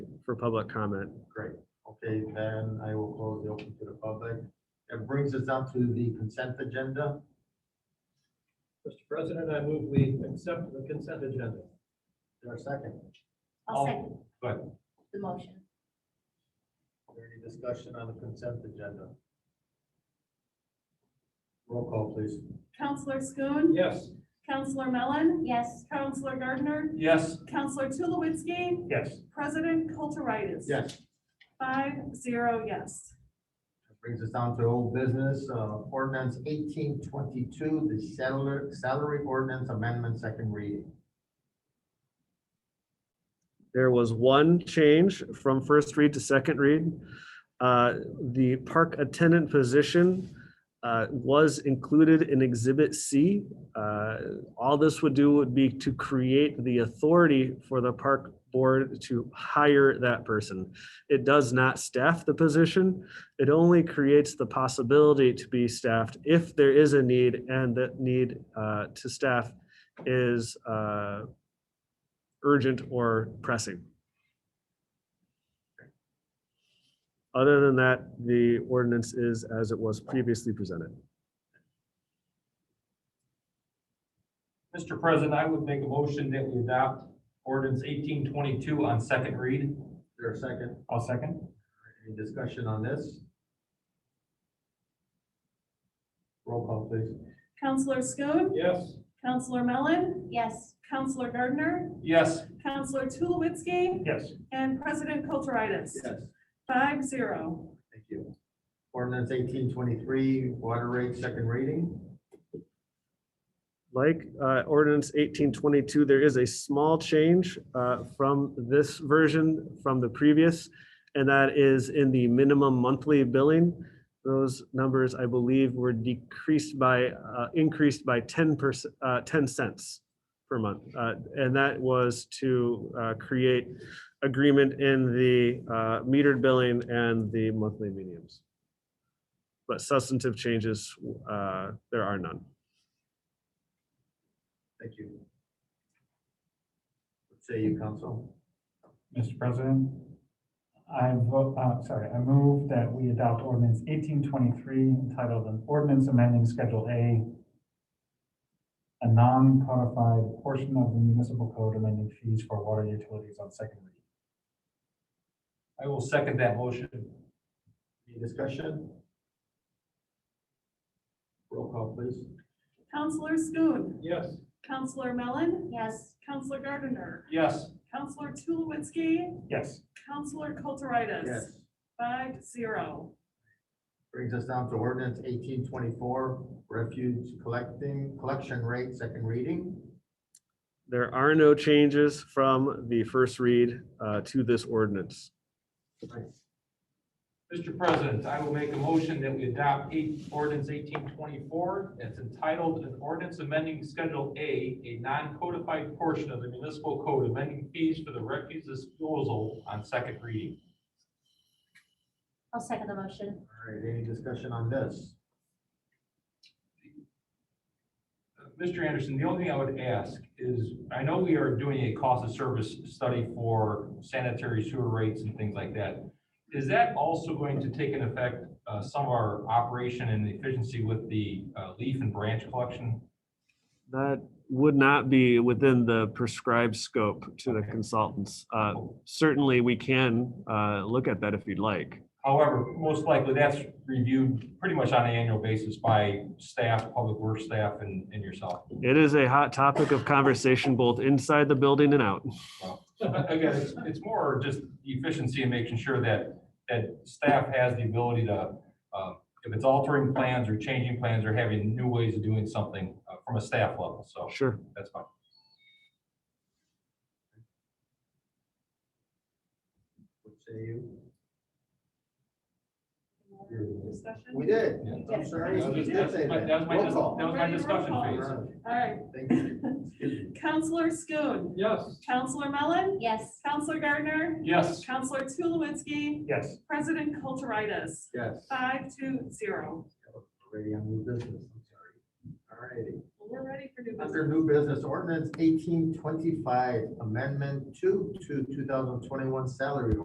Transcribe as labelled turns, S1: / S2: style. S1: for public comment.
S2: Great. Okay, then I will close the open to the public. It brings us down to the consent agenda.
S3: Mr. President, I move we accept the consent agenda.
S2: Is there a second?
S4: I'll second
S2: Go ahead.
S4: the motion.
S2: Any discussion on the consent agenda? Roll call, please.
S5: Counselor Schoen,
S3: Yes.
S5: Counselor Mellon,
S4: Yes,
S5: Counselor Gardner,
S3: Yes.
S5: Counselor Tulowitzki,
S3: Yes.
S5: President Kulturitis.
S2: Yes,
S5: Five, zero, yes.
S2: that brings us down to old business, uh, ordinance eighteen twenty-two, the salary, salary ordinance amendment, second reading.
S1: There was one change from first read to second read. Uh, The park attendant position uh, was included in Exhibit C. Uh, All this would do would be to create the authority for the park board to hire that person. It does not staff the position. It only creates the possibility to be staffed if there is a need and that need uh, to staff is uh, urgent or pressing. Other than that, the ordinance is as it was previously presented.
S6: Mr. President, I would make a motion that we adopt ordinance eighteen twenty-two on second read.
S2: Is there a second?
S6: I'll second.
S2: Any discussion on this? Roll call, please.
S5: Counselor Schoen,
S3: Yes.
S5: Counselor Mellon,
S4: yes,
S5: Counselor Gardner,
S6: Yes.
S5: Counselor Tulowitzki,
S6: Yes.
S5: and President Kulturitis.
S2: Yes.
S5: Five, zero.
S2: Thank you. Ordinance eighteen twenty-three, water rate, second reading.
S1: Like uh, ordinance eighteen twenty-two, there is a small change uh, from this version from the previous. And that is in the minimum monthly billing. Those numbers, I believe, were decreased by, uh, increased by ten percent, ten cents per month. Uh, And that was to uh, create agreement in the uh, metered billing and the monthly mediums. But substantive changes, uh, there are none.
S2: Thank you. What say you, council?
S7: Mr. President, I vote, uh, sorry, I move that we adopt ordinance eighteen twenty-three entitled an ordinance amending Schedule A, a non-codified portion of the municipal code amending fees for water utilities on second reading.
S6: I will second that motion.
S2: Any discussion? Roll call, please.
S5: Counselor Schoen,
S3: Yes.
S5: Counselor Mellon,
S4: yes,
S5: Counselor Gardner,
S6: Yes.
S5: Counselor Tulowitzki,
S7: Yes,
S5: Counselor Kulturitis. Five, zero.
S2: Brings us down to ordinance eighteen twenty-four, refuge collecting, collection rate, second reading.
S1: There are no changes from the first read uh, to this ordinance.
S6: Mr. President, I will make a motion that we adopt eight, ordinance eighteen twenty-four. It's entitled an ordinance amending Schedule A, a non-codified portion of the municipal code amending fees for the refuse disposal on second reading.
S4: I'll second the motion.
S2: All right, any discussion on this?
S6: Mr. Anderson, the only thing I would ask is, I know we are doing a cost of service study for sanitary sewer rates and things like that. Is that also going to take an effect, uh, some of our operation and efficiency with the, uh, leaf and branch collection?
S1: That would not be within the prescribed scope to the consultants. Uh, Certainly, we can uh, look at that if you'd like.
S6: However, most likely that's reviewed pretty much on an annual basis by staff, public works staff and, and yourself.
S1: It is a hot topic of conversation both inside the building and out.
S6: Again, it's, it's more just efficiency and making sure that, that staff has the ability to, uh, if it's altering plans or changing plans or having new ways of doing something uh, from a staff level, so
S1: Sure.
S6: that's fine.
S2: What say you?
S5: Discussion?
S2: We did.
S6: Yeah.
S2: I'm sorry.
S5: Yes,
S2: I
S5: we
S2: did
S5: did.
S2: say
S6: That's my- that was my
S2: Roll
S6: dis-
S2: call.
S6: that was my
S5: Ready, roll
S6: discussion
S5: call.
S6: phase.
S2: All
S5: All right.
S2: right, Thank you.
S5: Counselor Schoen,
S3: Yes.
S5: Counselor Mellon,
S4: Yes,
S5: Counselor Gardner,
S6: Yes,
S5: Counselor Tulowitzki,
S7: yes.
S5: President Kulturitis.
S2: Yes.
S5: Five to zero.
S2: Already on new business, I'm sorry. All righty.
S5: We're ready for new
S2: Under
S5: business.
S2: new business ordinance eighteen twenty-five, amendment two to two thousand twenty-one salary